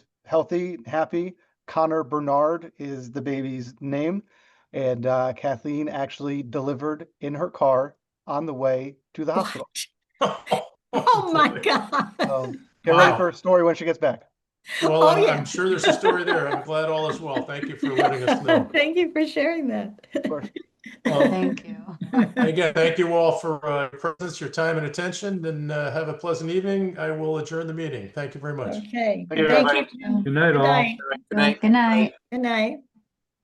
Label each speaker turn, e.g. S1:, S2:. S1: healthy, happy. Connor Bernard is the baby's name. And uh, Kathleen actually delivered in her car on the way to the hospital.
S2: Oh my God.
S3: Oh,
S1: So get ready
S3: Wow.
S1: for a story when she gets back.
S3: Well,
S2: Oh,
S3: I'm-
S2: yeah.
S3: I'm sure there's a story there. I'm glad all is well. Thank you for letting us know.
S2: Thank you for sharing that.
S1: course.
S3: Well,
S4: Thank you.
S3: Again, thank you all for uh, your presence, your time and attention, and uh, have a pleasant evening. I will adjourn the meeting. Thank you very much.
S2: Okay.
S1: Thank you,
S2: Thank
S5: everybody.
S2: you.
S5: Good night,
S2: Good
S5: all.
S2: night.
S4: Good night.
S2: Good night.